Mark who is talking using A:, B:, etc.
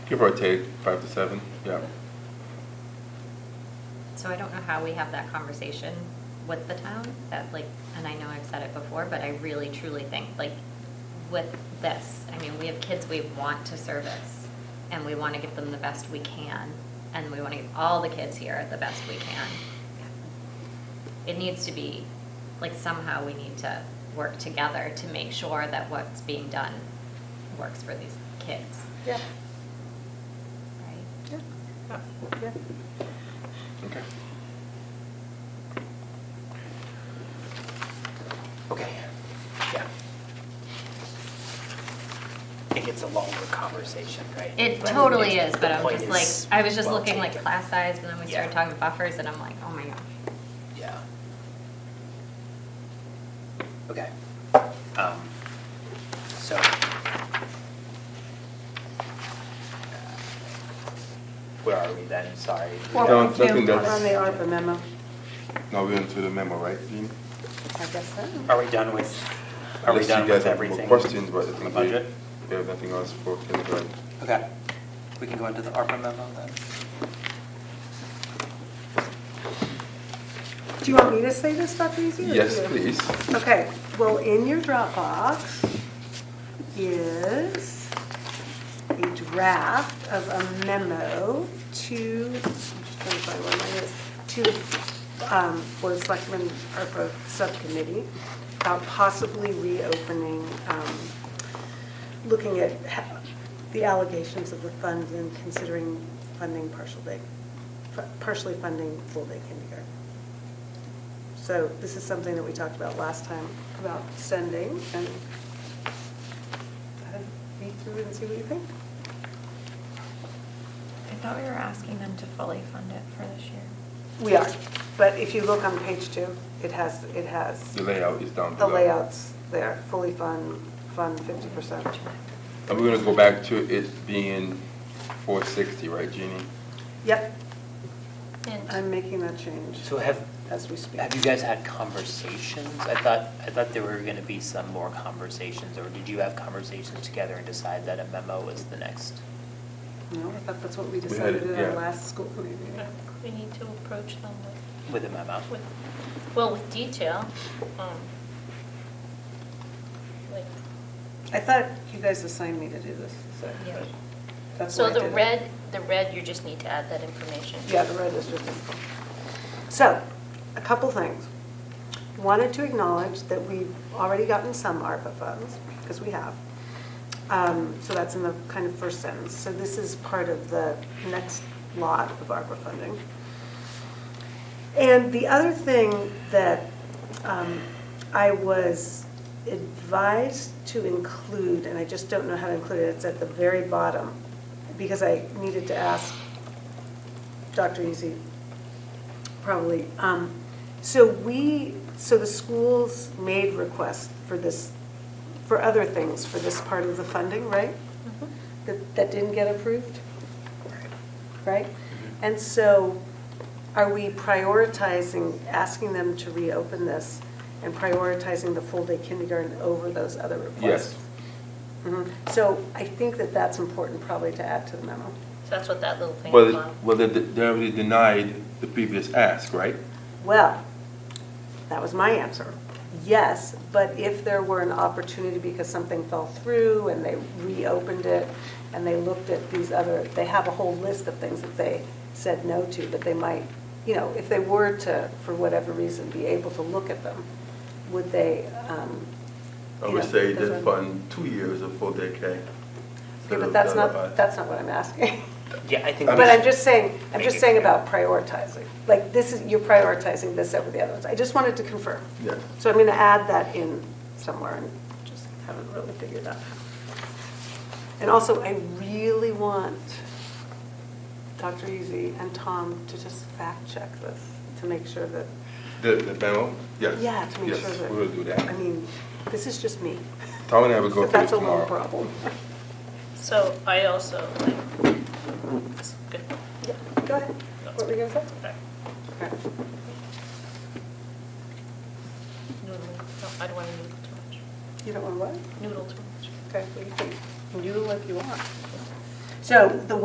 A: Give or take, five to seven, yeah.
B: So I don't know how we have that conversation with the town, that like, and I know I've said it before, but I really truly think, like, with this, I mean, we have kids we want to service, and we want to give them the best we can, and we want to give all the kids here the best we can. It needs to be, like, somehow we need to work together to make sure that what's being done works for these kids,
C: Yeah.
B: right?
C: Yeah.
A: Okay.
D: Okay, yeah. It gets a longer conversation, right?
B: It
D: But
B: totally
D: it's-
B: is, but
D: the
B: I'm
D: point
B: just like,
D: is
B: I was just
D: well
B: looking like
D: taken.
B: class size, and then we started
D: Yeah.
B: talking buffers, and I'm like, oh my gosh.
D: Yeah. Okay. Um, So. Uh, Where are we then? Sorry.
A: Well- Don't- don't think
C: We're
A: that's-
C: On the ARPA memo,
A: Now we're into the memo, right, Dean?
C: I guess so.
D: Are we done with, are we
A: Unless you
D: done
A: guys
D: with
A: have more
D: everything?
A: Questions, but I
D: on the
A: think
D: budget?
A: we, we have nothing else for kindergarten.
D: Okay. We can go into the ARPA memo then?
C: Do you want me to say this stuff easy? or
A: Yes,
C: you?
A: please.
C: Okay, well, in your Dropbox is a draft of a memo to, I'm just trying to find where mine is, to the um, Board of Selectmen ARPA Subcommittee about possibly reopening, um, looking at ha- the allegations of the funds and considering funding partial day, fu- partially funding full-day kindergarten. So this is something that we talked about last time, about sending, and uh, read through it and see what you think.
E: I thought we were asking them to fully fund it for this year.
C: We are, but if you look on page two, it has, it has,
A: The layout is down
C: the
A: below.
C: layouts there, fully fund, fund fifty percent.
A: And we're gonna go back to it being four sixty, right, Jeannie?
C: Yep,
E: And
C: I'm making that change
D: So have,
C: as we speak.
D: Have you guys had conversations? I thought, I thought there were going to be some more conversations, or did you have conversations together and decide that a memo was the next?
C: No, I thought that's what we
A: had
C: decided
A: it,
C: at our
A: yeah.
C: last school committee meeting.
F: We need to approach them with,
D: With a memo?
F: with, well, with detail, um, like,
C: I thought you guys assigned me to do this, so
F: yeah.
C: that's why
F: So
C: I did
F: the
C: it.
F: red, the red, you just need to add that information.
C: Yeah, the red is just info. So, a couple things. Wanted to acknowledge that we've already gotten some ARPA funds, because we have. Um, So that's in the kind of first sentence. So this is part of the next lot of ARPA funding. And the other thing that um, I was advised to include, and I just don't know how to include it, it's at the very bottom, because I needed to ask Dr. Easy, probably. Um, So we, so the schools made requests for this, for other things, for this part of the funding, right? That, that didn't get approved, right? And so are we prioritizing, asking them to reopen this and prioritizing the full-day kindergarten over those other requests?
A: Yes.
C: Yes. So I think that that's important probably to add to the memo.
F: So that's what that little thing is
A: Well,
F: about.
A: well, they, they already denied the previous ask, right?
C: Well, that was my answer. Yes, but if there were an opportunity because something fell through and they reopened it and they looked at these other, they have a whole list of things that they said no to, but they might, you know, if they were to, for whatever reason, be able to look at them, would they? um,
A: I
C: you
A: would
C: know,
A: say they
C: that's what-
A: fund two years of full day K.
C: Okay, but that's not, that's not what I'm asking.
D: Yeah, I think.
C: But I'm just saying, I'm
D: Make it
C: just saying
D: clear.
C: about prioritizing. Like, this is, you're prioritizing this over the other ones. I just wanted to confirm.
A: Yes.
C: So I'm going to add that in somewhere and just haven't really figured out. And also, I really want Dr. Easy and Tom to just fact check this to make sure that,
A: The, the memo, yes.
C: yeah, to make sure that.
A: Yes, we will do
C: I
A: that.
C: mean, this is just me.
A: Tom and I will go through
C: But
A: it
C: That's a little
A: tomorrow.
C: problem.
F: So I also, like, it's a good.
C: Yeah, Go ahead. What were you going to say?
F: Okay.
C: Okay.
F: Noodling. No, I don't want to noodle too much.
C: You don't want what?
F: Noodle too much.
C: Okay, well, you can noodle if you want. So the